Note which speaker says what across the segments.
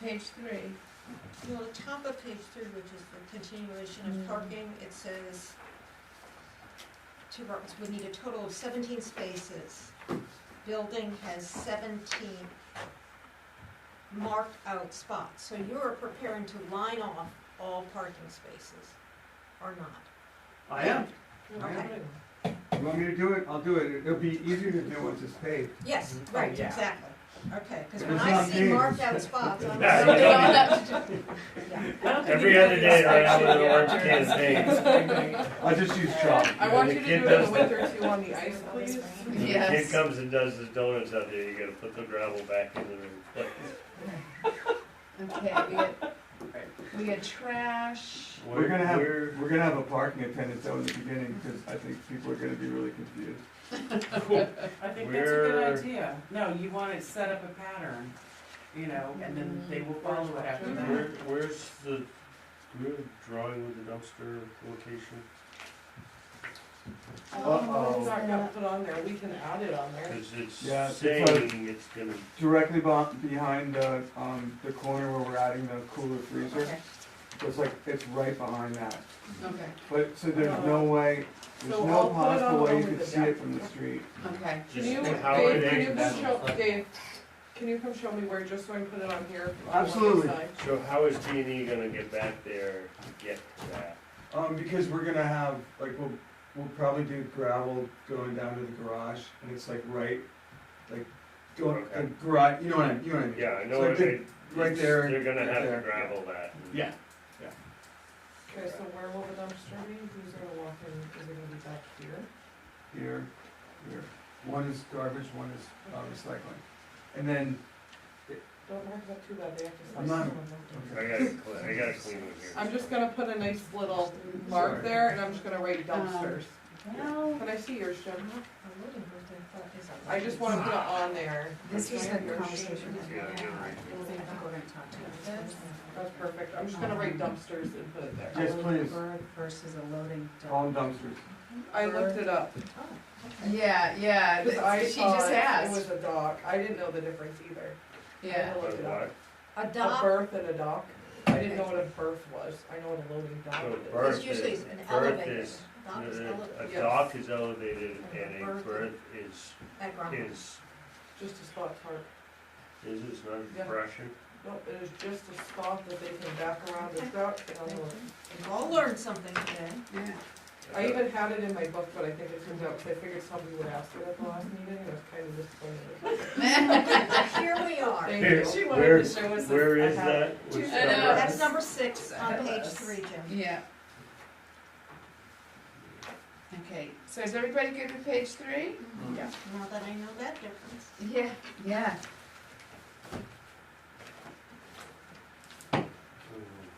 Speaker 1: page three, you know, the top of page three, which is the continuation of
Speaker 2: Mm.
Speaker 1: parking, it says two parks, we need a total of seventeen spaces. Building has seventeen marked out spots, so you're preparing to line off all parking spaces, or not?
Speaker 3: I am.
Speaker 1: Okay,
Speaker 4: Oh,
Speaker 5: You want me to do it? I'll do it. It'll be easier to do once it's paved.
Speaker 1: yes,
Speaker 3: Oh,
Speaker 1: right,
Speaker 3: yeah.
Speaker 1: exactly, okay, cause
Speaker 5: But
Speaker 1: when
Speaker 5: it's
Speaker 1: I
Speaker 5: not
Speaker 1: see
Speaker 5: paved.
Speaker 1: marked out spots, I'm
Speaker 6: Yeah,
Speaker 1: like,
Speaker 6: yeah.
Speaker 1: yeah.
Speaker 6: Every other day, I have to learn kids'
Speaker 2: names.
Speaker 5: I just use chalk.
Speaker 2: I want you to
Speaker 6: The
Speaker 2: do
Speaker 6: kid
Speaker 2: it in
Speaker 6: does
Speaker 2: the winter too on the ice, please.
Speaker 6: When the kid comes and does his donuts out there, you gotta put the gravel back in the place.
Speaker 2: Okay, we got, we got trash.
Speaker 5: We're gonna have, we're gonna have a parking attendant though in the beginning, because I think people are gonna be really confused.
Speaker 4: I think that's a good
Speaker 6: We're-
Speaker 4: idea. No, you want to set up a pattern, you know, and then
Speaker 2: Mm.
Speaker 4: they will follow it after
Speaker 6: Where,
Speaker 4: that.
Speaker 6: where's the, do we have a drawing with the dumpster location?
Speaker 5: Uh-oh.
Speaker 4: Oh, It's not gonna put on there, we can add it on there.
Speaker 6: Cause
Speaker 5: Yeah,
Speaker 6: it's
Speaker 5: it's
Speaker 6: saying it's gonna,
Speaker 5: Directly beh- behind the, um, the corner where we're adding the cooler freezer,
Speaker 2: Okay,
Speaker 5: it's like, it's right behind that.
Speaker 2: okay,
Speaker 5: But, so there's no way, there's
Speaker 4: So
Speaker 5: no
Speaker 4: I'll put it
Speaker 5: possible
Speaker 4: on
Speaker 5: way you
Speaker 4: over
Speaker 5: could
Speaker 4: the
Speaker 5: see it
Speaker 4: deck.
Speaker 5: from the street.
Speaker 2: okay.
Speaker 4: Can
Speaker 6: just
Speaker 4: you,
Speaker 6: how it
Speaker 4: Dave, can you
Speaker 6: is.
Speaker 4: come show, Dave, can you come show me where, just so I can put it on here? on one
Speaker 5: Absolutely.
Speaker 4: side?
Speaker 6: So how is D and E gonna get back there to get to that?
Speaker 5: Um, because we're gonna have, like, we'll, we'll probably do gravel going down to the garage, and it's like right, like, going,
Speaker 6: Okay.
Speaker 5: the garage, you know what I, you know what I mean?
Speaker 6: Yeah, I know,
Speaker 5: It's like
Speaker 6: it-
Speaker 5: the- Right
Speaker 6: it's-
Speaker 5: there.
Speaker 6: They're gonna
Speaker 5: right
Speaker 6: have to
Speaker 5: there.
Speaker 6: gravel that.
Speaker 5: Yeah.
Speaker 4: Okay, so where will the dumpster be? Who's gonna walk in? Is it gonna be back here?
Speaker 5: Here, here, one is garbage, one is, uh, recycling, and then,
Speaker 4: Don't mark that too bad, they have to.
Speaker 5: I'm
Speaker 4: sign
Speaker 5: not-
Speaker 4: someone, don't
Speaker 6: I gotta, cle- I gotta clean it here.
Speaker 4: they? I'm just gonna put a nice little mark
Speaker 5: Sorry.
Speaker 4: there, and I'm just gonna write
Speaker 2: Um,
Speaker 4: dumpsters.
Speaker 2: Well,
Speaker 4: Can I see yours, Jim? I
Speaker 1: I
Speaker 4: just wanna put it on there.
Speaker 2: this was the
Speaker 4: Right here.
Speaker 2: conversation that we
Speaker 6: Yeah,
Speaker 2: had.
Speaker 6: you're right.
Speaker 2: Well, then I think we're gonna talk to them.
Speaker 4: That's perfect, I'm just gonna write
Speaker 2: Um,
Speaker 4: dumpsters and put it there.
Speaker 5: Yes,
Speaker 2: A loaded
Speaker 5: please.
Speaker 2: bird Versus a loading Oh,
Speaker 5: all
Speaker 2: dog.
Speaker 5: in dumpsters.
Speaker 4: I looked it up.
Speaker 2: Yeah, yeah,
Speaker 4: Because I
Speaker 2: she just
Speaker 4: thought It
Speaker 2: asked,
Speaker 4: was a dock, I didn't know the difference either.
Speaker 2: yeah.
Speaker 4: I looked it up.
Speaker 1: A
Speaker 4: A
Speaker 1: dock
Speaker 4: berth and a dock, I didn't know what a berth was, I know what a loading dock
Speaker 6: So
Speaker 4: is.
Speaker 6: berth-
Speaker 1: is usually an
Speaker 6: Berth
Speaker 1: elevator.
Speaker 6: is- uh,
Speaker 1: Dock is
Speaker 6: A
Speaker 1: elevator
Speaker 4: Yes.
Speaker 6: dock is elevated and a
Speaker 1: Berth.
Speaker 6: berth is,
Speaker 1: at ground.
Speaker 6: is,
Speaker 4: Just a spot tarp,
Speaker 6: is this not
Speaker 4: Yeah.
Speaker 6: Russian?
Speaker 4: no, it is just a spot that they can back around the dock and unload.
Speaker 1: We've all learned something today.
Speaker 2: Yeah.
Speaker 4: I even had it in my book, but I think it turned out, because I figured somebody would ask it at the last meeting, and I was kind of disappointed.
Speaker 1: Here we are.
Speaker 4: Thank you.
Speaker 6: She wanted to Where- show
Speaker 4: us.
Speaker 6: Where is that? Which
Speaker 4: I
Speaker 6: number?
Speaker 2: know.
Speaker 1: That's number six on page three, Jim.
Speaker 2: Yeah. Okay, so is everybody good with page three?
Speaker 4: Yeah.
Speaker 1: Now that I know that difference.
Speaker 2: Yeah. Yeah.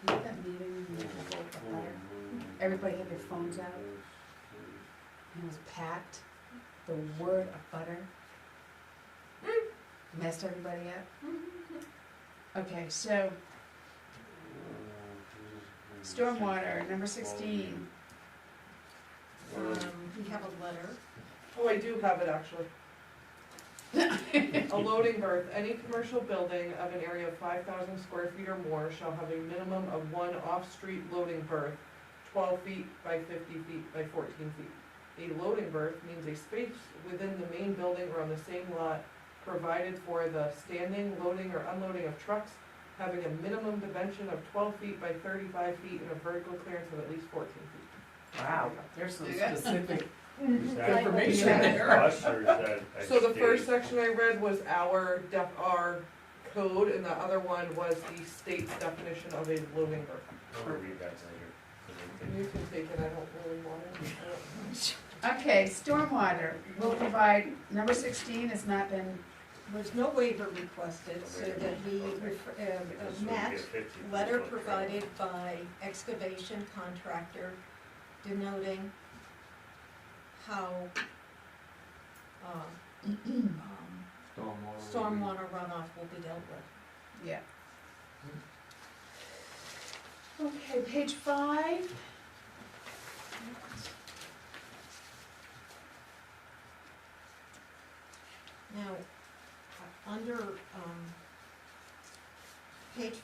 Speaker 2: that meeting, and the whole letter, Everybody had their phones out? and it was packed, the word of butter.
Speaker 1: Mm-hmm.
Speaker 2: Messed everybody up. Okay, so stormwater, number sixteen.
Speaker 1: Um, we have a letter.
Speaker 4: Oh, I do have it actually. A loading berth, any commercial building of an area of five thousand square feet or more shall have a minimum of one off-street loading berth, twelve feet by fifty feet by fourteen feet. A loading berth means a space within the main building or on the same lot provided for the standing, loading, or unloading of trucks, having a minimum dimension of twelve feet by thirty-five feet and a vertical clearance of at least fourteen feet. Wow,
Speaker 7: There's some
Speaker 2: Yeah.
Speaker 7: specific
Speaker 6: Is
Speaker 1: Mm-hmm.
Speaker 6: that
Speaker 7: information
Speaker 2: Yeah.
Speaker 7: there.
Speaker 6: us or is that a
Speaker 4: So the first
Speaker 6: state?
Speaker 4: section I read was our def, our code, and the other one was the state's definition of a loading berth.
Speaker 6: I'll read that later.
Speaker 4: You can take it, I don't really want it. I don't-
Speaker 2: Okay, stormwater, will provide, number sixteen has not been,
Speaker 1: There's no waiver requested, so that we, refer- um,
Speaker 6: Because
Speaker 1: uh,
Speaker 6: we
Speaker 1: match
Speaker 6: get 50
Speaker 1: Letter
Speaker 6: foot trailer.
Speaker 1: provided by excavation contractor denoting how, uh, um, stormwater runoff will be dealt with.
Speaker 2: yeah. Okay, page five.
Speaker 1: Now, uh, under, um, page